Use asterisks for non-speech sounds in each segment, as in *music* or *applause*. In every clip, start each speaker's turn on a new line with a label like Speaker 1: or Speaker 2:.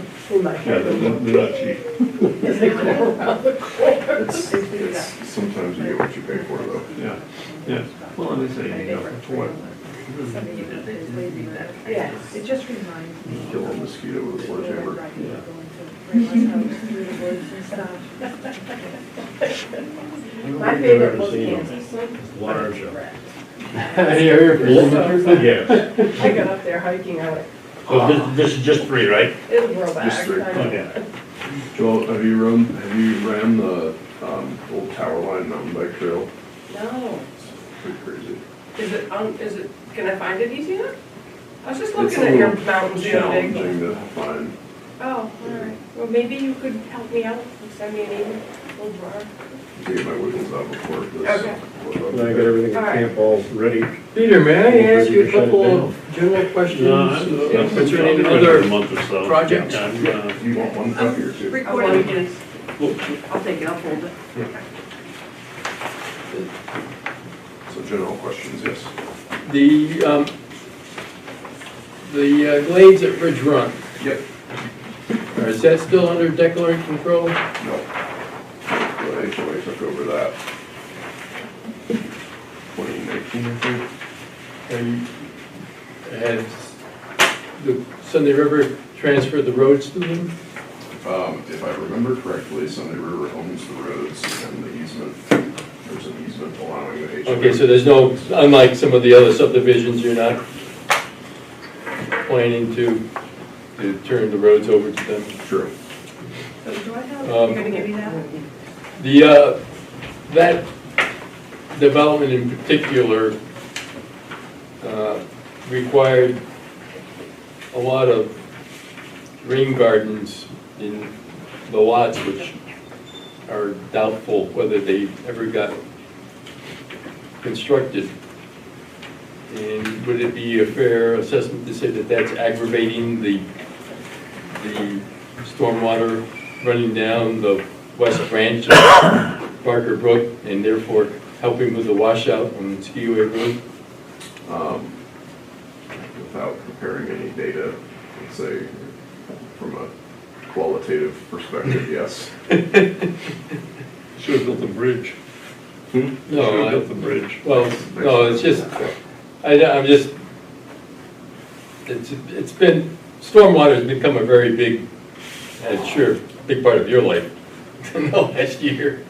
Speaker 1: in my
Speaker 2: Yeah,
Speaker 1: head.
Speaker 2: they're not- they're not cheap.
Speaker 3: It's, it's, sometimes you get what you pay for though.
Speaker 2: Yeah, yeah. Well, and they say, you know, for what?
Speaker 1: Yeah, it just reminds me.
Speaker 3: Kill a mosquito with a sledgehammer.
Speaker 1: My favorite was Kansas.
Speaker 4: Water jump.
Speaker 2: Yeah.
Speaker 1: I got up there hiking, I went,
Speaker 4: So
Speaker 2: Oh,
Speaker 4: this, this is just three, right?
Speaker 1: it'll grow back.
Speaker 3: Just three.
Speaker 1: I know.
Speaker 4: Okay.
Speaker 3: Joel, have you run, have you ran the, um, old tower line mountain bike trail?
Speaker 5: No.
Speaker 3: It's pretty crazy.
Speaker 5: Is it, um, is it, can I find it easy enough? I was just
Speaker 3: It's a
Speaker 5: looking at your
Speaker 3: little
Speaker 5: mountains the other day.
Speaker 3: Challenging to find.
Speaker 5: Oh, all right. Well, maybe you could help me out, send me an email, we'll draw.
Speaker 3: Get my wiggles out before this.
Speaker 5: Okay.
Speaker 6: And I got everything
Speaker 5: All
Speaker 6: at
Speaker 5: right.
Speaker 6: camp all
Speaker 2: Uh,
Speaker 6: ready.
Speaker 7: Peter, may I ask you a
Speaker 6: Shut it
Speaker 7: couple
Speaker 6: down.
Speaker 7: of general
Speaker 2: No,
Speaker 7: questions
Speaker 2: I'm-
Speaker 7: concerning
Speaker 2: I'm-
Speaker 7: other
Speaker 2: a month or so.
Speaker 7: projects?
Speaker 2: I'm, uh,
Speaker 3: You want one copy or two?
Speaker 5: Recording is.
Speaker 1: I'll take it, I'll fold it.
Speaker 3: So general questions, yes.
Speaker 7: The, um, the uh, glades at Ridge Run,
Speaker 3: Yep.
Speaker 7: or is that still under declarant control?
Speaker 3: No. The HOA took over that. Twenty nineteen, I think.
Speaker 7: And has the Sunday River transferred the roads to them?
Speaker 3: Um, if I remember correctly, Sunday River owns the roads and the easement, there's an easement allowing the HOA.
Speaker 7: Okay, so there's no, unlike some of the other subdivisions, you're not planning to, to turn the roads over to them?
Speaker 3: True.
Speaker 1: So do I have,
Speaker 7: Um,
Speaker 1: you're gonna give me that?
Speaker 7: The, uh, that development in particular uh, required a lot of rain gardens in the lots, which are doubtful whether they ever got constructed. And would it be a fair assessment to say that that's aggravating the, the stormwater running down the west branch of *coughs* Barker Brook and therefore helping with the washout on Skiway Road? *laughs*
Speaker 3: Um, without preparing any data, I'd say from a qualitative
Speaker 7: *laughs*
Speaker 3: perspective, yes.
Speaker 2: Should've built a bridge.
Speaker 7: No,
Speaker 2: Should've
Speaker 7: I-
Speaker 2: built the bridge.
Speaker 7: Well, no, it's just, I, am just, it's, it's been, stormwater's become a very big, and sure, big part of your life *laughs* in the last year.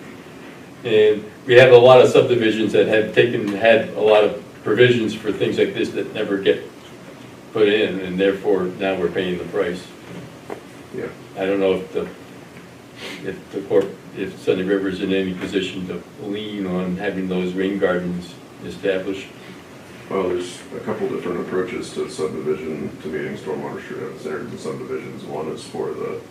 Speaker 7: And we have a lot of subdivisions that have taken, had a lot of provisions for things like this that never get put in, and therefore now we're paying the price.
Speaker 3: Yeah.
Speaker 7: I don't know if the, if the corp, if Sunday River's in any position to lean on having those rain gardens established.
Speaker 3: Well, there's a couple different approaches to subdivision, to meeting stormwater treatment standards and subdivisions. One is for the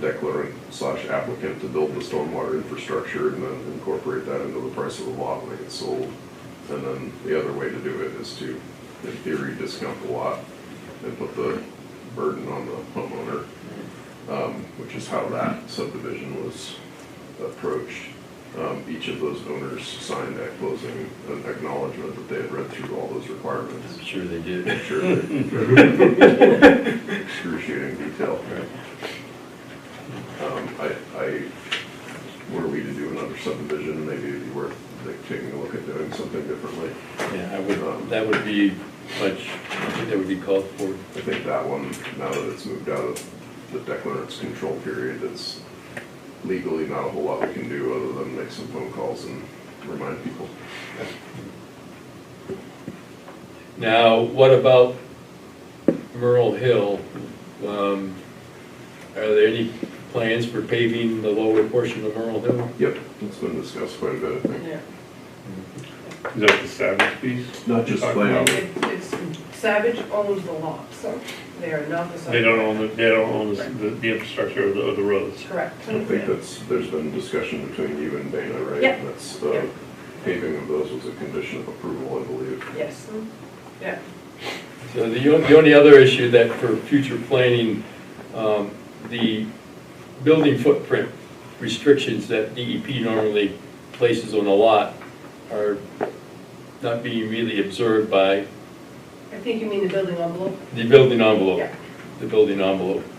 Speaker 3: declarant slash applicant to build the stormwater infrastructure and then incorporate that into the price of the lot when it gets sold. And then the other way to do it is to, in theory, discount the lot and put the burden on the homeowner, um, which is how that subdivision was approached. Um, Each of those owners signed at closing an acknowledgement that they had read through all those requirements.
Speaker 7: I'm sure they did. *laughs*
Speaker 3: Sure. Excruciating detail. Um, I, I, were we to do another subdivision, maybe it'd be worth like, taking a look at doing something differently.
Speaker 7: Yeah, I would, that would be much, I think that would be called for.
Speaker 3: I think that one, now that it's moved out of the declarant's control period, it's legally not a whole lot we can do other than make some phone calls and remind people.
Speaker 7: Now, what about Merle Hill? Um, Are there any plans for paving the lower portion of Merle Hill?
Speaker 3: Yep, it's been discussed quite a bit, I think.
Speaker 5: Yeah.
Speaker 2: Is that the Savage piece?
Speaker 3: Not just
Speaker 5: And
Speaker 3: layout.
Speaker 5: it- it's, Savage owns the lot, so they are not the.
Speaker 2: They don't own, the they don't own the- the, the infrastructure of the, of the roads.
Speaker 5: Correct.
Speaker 3: I think that's, there's been discussion between you and Dana, right?
Speaker 5: Yeah.
Speaker 3: That's, uh, paving of those was a condition of approval, I believe.
Speaker 5: Yes, yeah.
Speaker 7: So the o- the only other issue that for future planning, um, the building footprint restrictions that DEP normally places on a lot are not being really observed by
Speaker 5: I think you mean the building envelope?
Speaker 7: the building envelope.
Speaker 5: Yeah.
Speaker 7: The building envelope.